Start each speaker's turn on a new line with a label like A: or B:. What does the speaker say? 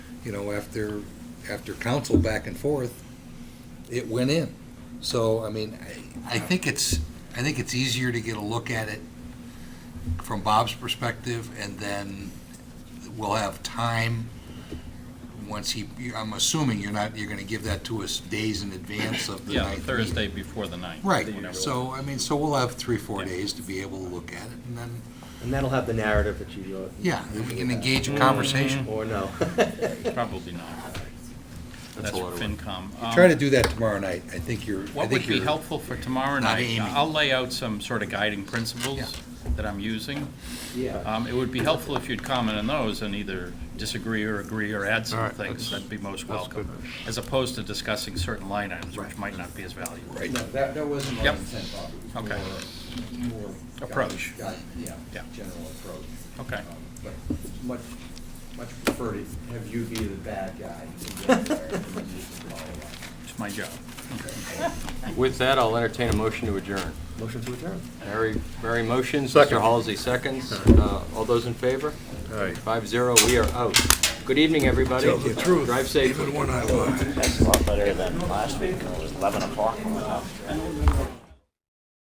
A: you know, after, after council back and forth, it went in. So, I mean, I, I think it's, I think it's easier to get a look at it from Bob's perspective, and then we'll have time, once he, I'm assuming you're not, you're gonna give that to us days in advance of the
B: Yeah,
A: ninth meeting.
B: Thursday before the ninth.
A: Right,
B: whatever.
A: so, I mean, so we'll have three, four
B: Yeah.
A: days to be able to look at it, and then,
C: And that'll have the narrative that you wrote.
A: yeah, then we can engage a
B: Mhm.
A: conversation.
C: Or no.
B: Probably not. That's
A: a lot
B: for
A: of work.
B: FinCom. Um,
A: Try to do that tomorrow night, I think you're, I
B: What
A: think
B: would be
A: you're,
B: helpful for tomorrow
A: Not
B: night,
A: aiming.
B: I'll lay out some sort of guiding
A: Yeah.
B: principles that I'm using.
C: Yeah.
B: Um, It would be helpful if you'd comment on those and either disagree or agree or add
D: All
B: some
D: right,
B: things.
D: that's-
B: That'd be most
D: that's
B: welcome, as opposed to discussing certain line items, which
A: Right.
B: might not be as valuable.
A: right, that, that wasn't
B: Yep.
A: intent, Bob,
B: was Okay.
A: more.
B: Approach.
A: Yeah,
B: Yeah.
A: general approach.
B: Okay.
A: But
E: Much, much prefer to have you be the bad guy. and get there and then you can follow up.
B: It's my job.
F: With that, I'll entertain a motion to adjourn.
C: Motion to adjourn.
F: Mary, Mary motions,
D: Second.
F: Mr. Halsey seconds. Uh, All those in favor?
D: Aye.
F: Five zero, we are out. Good evening, everybody.
D: Tell the truth.
F: Drive safe.
D: Even when I lie.
G: That's a lot better than last week, when it was 11 o'clock.